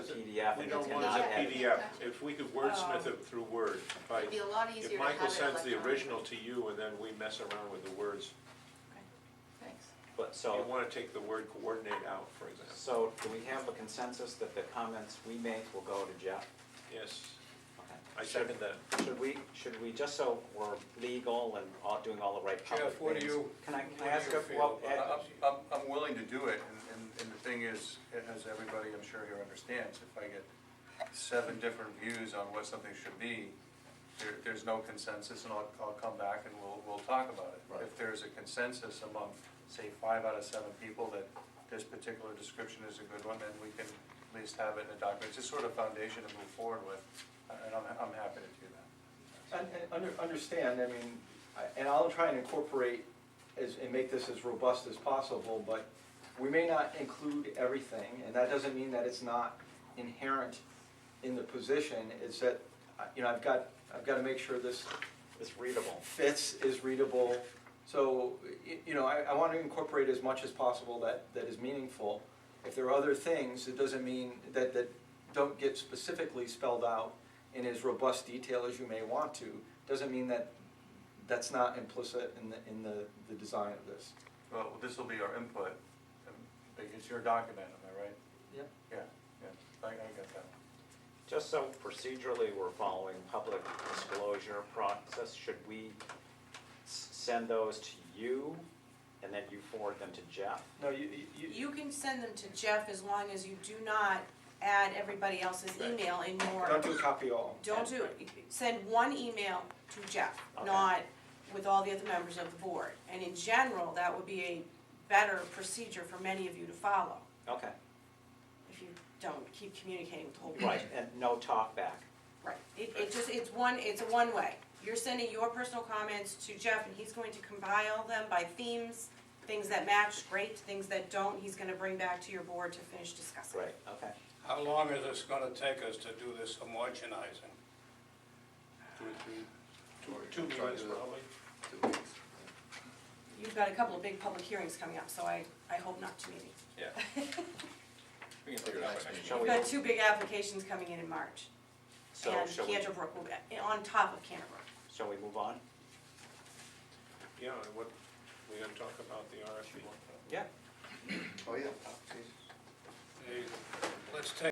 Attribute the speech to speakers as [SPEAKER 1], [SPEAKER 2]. [SPEAKER 1] PDF
[SPEAKER 2] We
[SPEAKER 1] and
[SPEAKER 2] don't
[SPEAKER 1] you
[SPEAKER 2] want
[SPEAKER 1] cannot
[SPEAKER 2] it
[SPEAKER 1] edit.
[SPEAKER 2] as a PDF. If we could wordsmith it through Word, by,
[SPEAKER 3] It'd be a lot easier to
[SPEAKER 2] if
[SPEAKER 3] have it
[SPEAKER 2] Michael sends the
[SPEAKER 3] electronically.
[SPEAKER 2] original to you and then we mess around with the words,
[SPEAKER 3] Okay, Thanks.
[SPEAKER 1] But
[SPEAKER 2] you
[SPEAKER 1] so,
[SPEAKER 2] wanna take the word coordinate out, for example.
[SPEAKER 1] so do we have a consensus that the comments we make will go to Jeff?
[SPEAKER 2] Yes,
[SPEAKER 1] Okay.
[SPEAKER 2] I second that.
[SPEAKER 1] Should we, should we, just so we're legal and all, doing all the right public things?
[SPEAKER 4] Jeff, what do you-
[SPEAKER 1] Can I, can
[SPEAKER 4] what
[SPEAKER 1] I
[SPEAKER 4] do
[SPEAKER 1] ask
[SPEAKER 4] you
[SPEAKER 1] a,
[SPEAKER 4] feel
[SPEAKER 1] well,
[SPEAKER 4] about
[SPEAKER 1] Ed,
[SPEAKER 4] it?
[SPEAKER 5] I'm, I'm- I'm willing to do it, and, and- and the thing is, as everybody I'm sure here understands, if I get seven different views on what something should be, there, there's no consensus, and I'll, I'll come back and we'll, we'll talk about it.
[SPEAKER 4] Right.
[SPEAKER 5] If there's a consensus among, say, five out of seven people that this particular description is a good one, then we can at least have it in a document, it's just sort of foundation to move forward with, and I'm, I'm happy to do that.
[SPEAKER 6] Un- un- under- Understand, I mean, I- and I'll try and incorporate as, and make this as robust as possible, but we may not include everything, and that doesn't mean that it's not inherent in the position, it's that, I- you know, I've got, I've got to make sure this
[SPEAKER 1] it's readable.
[SPEAKER 6] fits, is readable. So, y- you know, I, I want to incorporate as much as possible that, that is meaningful. If there are other things, it doesn't mean that, that don't get specifically spelled out in as robust detail as you may want to, doesn't mean that that's not implicit in the, in the, the design of this.
[SPEAKER 5] Well, this will be our input, and- but it's your document, am I right?
[SPEAKER 6] Yep.
[SPEAKER 5] Yeah, yeah, I, I got that.
[SPEAKER 1] Just so procedurally we're following public disclosure process, should we s- send those to you and then you forward them to Jeff?
[SPEAKER 6] No, you, you.
[SPEAKER 3] You can send them to Jeff as long as you do not add everybody else's
[SPEAKER 2] Right.
[SPEAKER 3] email in your.
[SPEAKER 6] Don't do copy all.
[SPEAKER 3] Don't do it. Send one email to Jeff,
[SPEAKER 1] Okay.
[SPEAKER 3] not with all the other members of the board. And in general, that would be a better procedure for many of you to follow,
[SPEAKER 1] Okay,
[SPEAKER 3] if you don't keep communicating with the whole board.
[SPEAKER 1] right, and no talk back.
[SPEAKER 3] Right. It, it just, it's one, it's a one-way. You're sending your personal comments to Jeff, and he's going to compile them by themes, things that match, great, things that don't, he's gonna bring back to your board to finish discussing.
[SPEAKER 1] Right, okay.
[SPEAKER 4] How long is this gonna take us to do this homogenizing?
[SPEAKER 2] Two or three.
[SPEAKER 4] Two
[SPEAKER 2] Try this
[SPEAKER 4] meetings,
[SPEAKER 2] one.
[SPEAKER 4] probably?
[SPEAKER 3] You've got a couple of big public hearings coming up, so I, I hope not too many.
[SPEAKER 2] Yeah. We can figure it out. by next
[SPEAKER 1] Shall
[SPEAKER 3] We've
[SPEAKER 1] we-
[SPEAKER 2] meeting.
[SPEAKER 3] got two big applications coming in in March,
[SPEAKER 1] So
[SPEAKER 3] and
[SPEAKER 1] shall we,
[SPEAKER 3] Canterbrook will be, on top of Canterbrook.
[SPEAKER 1] shall we move on?
[SPEAKER 2] Yeah, and what, we gonna talk about the RFP?
[SPEAKER 1] Yeah.
[SPEAKER 7] Oh, yeah. Oh, Jesus.
[SPEAKER 4] Hey, Let's take